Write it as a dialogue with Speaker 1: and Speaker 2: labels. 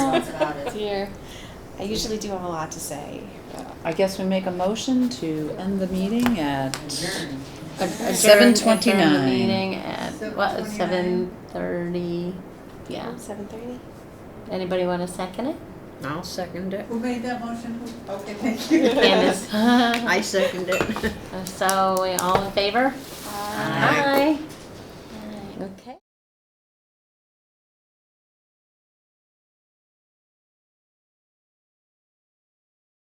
Speaker 1: thoughts about it.
Speaker 2: Dear, I usually do have a lot to say.
Speaker 3: I guess we make a motion to end the meeting at
Speaker 1: Adjourn.
Speaker 3: at
Speaker 4: Adjourn-
Speaker 3: seven
Speaker 4: adjourn the
Speaker 3: twenty-nine.
Speaker 4: Meeting at, what,
Speaker 1: 7:29?
Speaker 4: seven thirty? Yeah.
Speaker 2: Seven thirty?
Speaker 4: Anybody want to second it?
Speaker 5: I'll second it.
Speaker 1: Who made that motion? Who- Okay, thank you.
Speaker 4: Candace?
Speaker 5: I second it.
Speaker 4: So, we all in favor?
Speaker 2: Uh,
Speaker 5: Aye.